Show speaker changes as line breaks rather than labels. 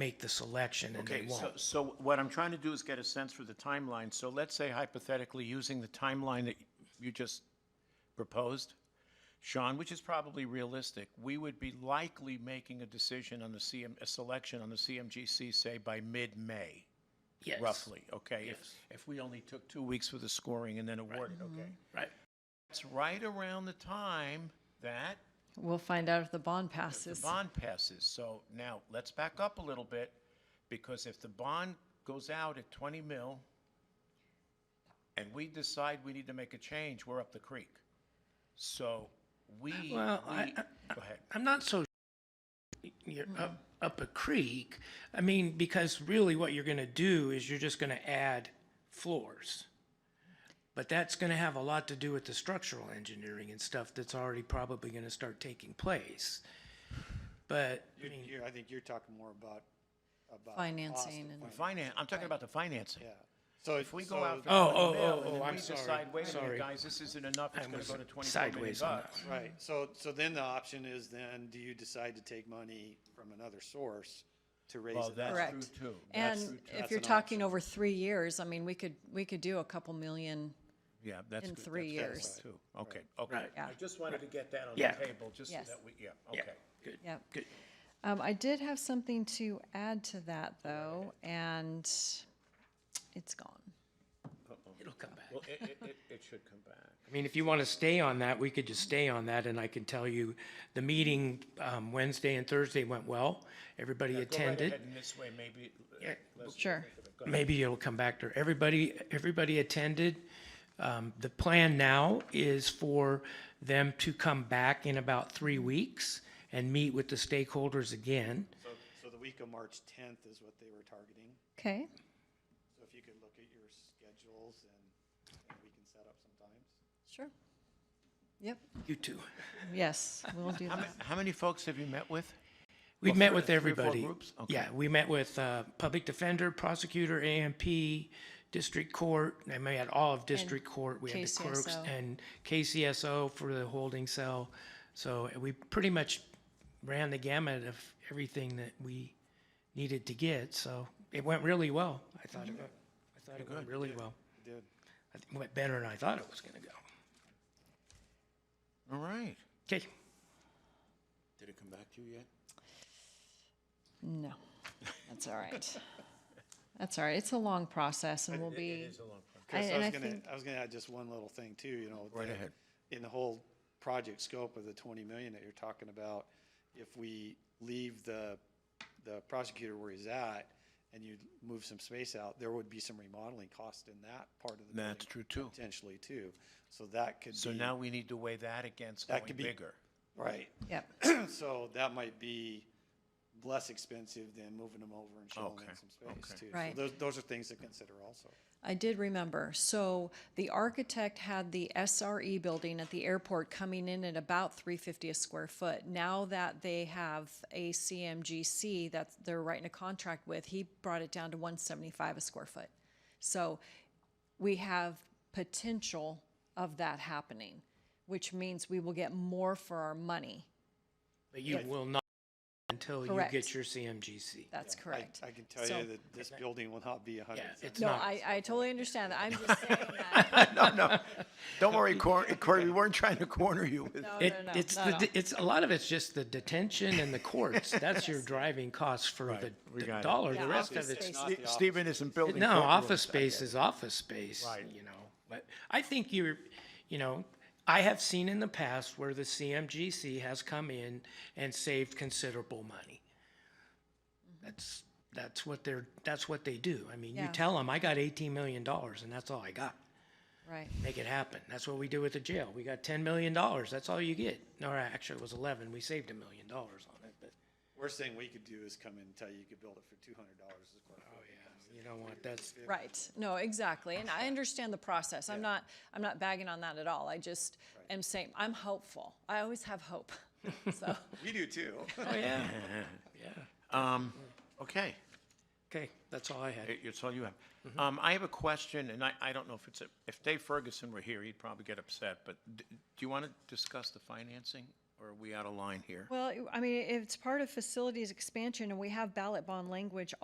make the selection and they
Okay, so,
won't.
so what I'm trying to do is get a sense for the timeline. So let's say hypothetically, using the timeline that you just proposed, Sean, which is probably realistic, we would be likely making a decision on the CM, a selection on the CMGC, say, by mid-May,
Yes,
roughly, okay? If-
Yes.
If we only took two weeks for the scoring and then awarded, okay?
Right. Mm-hmm.
It's right around the time that
We'll find out if the bond
the
passes.
bond passes. So now, let's back up a little bit, because if the bond goes out at 20 mil, and we decide we need to make a change, we're up the creek. So we, we, go
Well, I-
ahead.
I'm not so you're up, up a creek. I mean, because really what you're gonna do is you're just gonna add floors. But that's gonna have a lot to do with the structural engineering and stuff that's already probably gonna start taking place. But, I
You're,
mean,
you're- I think you're talking more about, about. cost
Financing
of
and-
fin-
Finan, I'm talking about the financing.
Yeah. So
If we
so
go out
the-
for
Oh,
20
oh,
mil,
oh,
and then
oh, I'm
we
sorry.
decide, wait a minute,
Sorry.
guys, this isn't enough, it's gonna
was
go to 24 million
sideways on that
bucks.
Right, so, so then the option is then, do you decide to take money from another source to raise
Well,
it?
that's-
Correct.
true, too. That's
And
true, too.
if
That's
you're
an
talking
option.
over three years, I mean, we could, we could do a couple million.
Yeah, that's.
In
good.
three
That's good, too. Okay, okay.
Right.
I just wanted to get that on
Yeah.
the table, just so
Yes.
that we, yeah,
yeah,
okay.
good,
Yep.
good.
Um, I did have something to add to that though, and it's gone.
It'll come back.
Well, it, it, it- it should come back.
I mean, if you want to stay on that, we could just stay on that, and I can tell you, the meeting um, Wednesday and Thursday went well. Everybody
Go right
attended.
ahead in this way, maybe. uh,
Yeah,
let's-
Sure.
Maybe it'll come back to, everybody, everybody attended. Um, The plan now is for them to come back in about three weeks and meet with the stakeholders again.
So, so the week of March tenth is what they were targeting,
Okay.
so if you could look at your schedules and, and we can set up some times.
Sure. Yep.
You two.
Yes, we'll do
How many,
that.
how many folks have you met with?
We
Well,
met
three-
with
three or four
everybody.
groups? Okay.
Yeah, we met with uh, public defender, prosecutor, AMP, district court, and we had all of district court. We had the clerks
KCSO.
and KCSO for the holding cell. So we pretty much ran the gamut of everything that we needed to get, so it went really well. I thought it went, I thought it went really well.
Did,
I think It went better than I thought it was gonna go.
All right.
Okay,
Did it come back to you yet?
No, that's all right. That's all right. It's a long process and we'll be.
It's a long process.
I-
Chris, I
and
was
I
gonna,
think-
I was gonna add just one little thing too, you know.
Right
that
ahead.
In the whole project scope of the twenty million that you're talking about, if we leave the, the prosecutor where he's at and you move some space out, there would be some remodeling cost in that part of the building.
That's true, too.
Potentially too. So that could be.
So now we need to weigh that against
That
going
could be-
bigger.
Right.
Yep.
So that might be less expensive than moving them over and shelling
Okay,
in some space too. So
Right.
Those, those are things to consider also.
I did remember. So the architect had the SRE building at the airport coming in at about three fifty a square foot. Now that they have a CMGC that they're writing a contract with, he brought it down to one seventy-five a square foot. So we have potential of that happening, which means we will get more for our money.
but you will not until you
Correct.
get your CMGC.
That's
I-
correct.
I can tell
So-
you that this building will not be a hundred.
Yeah,
and
it's
No,
not,
I, I totally understand that. I'm just saying that.
Don't worry, Corey, Corey, we weren't trying to corner you with.
No,
It,
no, no,
it's
no,
the,
no.
de- it's, a lot of it's just the detention and the courts. That's your driving costs for the,
we
the
got it.
dollar.
Yeah,
The rest
office
of it's,
space.
Not the
Stephen isn't building.
no,
courtrooms.
office space is office space, you know. But I think you're, you know, I have seen in the past where the CMGC has come in and saved considerable money. That's, that's what they're, that's what they do. I mean, you
Mm-hmm. Yeah.
tell them, I got eighteen million dollars and that's all I got
Right.
make it happen. That's what we do with the jail. We got ten million dollars. That's all you get. No, actually, it was eleven. We saved a million dollars on it, but
Worst thing we could do is come in and tell you you could build it for two hundred dollars a square foot.
you know what? That's
Right, no, exactly, and I understand the process, I'm not, I'm not bagging on that at all, I just am saying, I'm hopeful, I always have hope, so,
We do too.
oh yeah,
Um, okay,
okay. That's all I had.
It- it's all you have.
Mm-hmm.
Um, I have a question, and I, I don't know if it's, a- if Dave Ferguson were here, he'd probably get upset, but d- do you want to discuss the financing Or are we out of line here?
Well, I mean, it's part of facilities expansion, and we have ballot bond language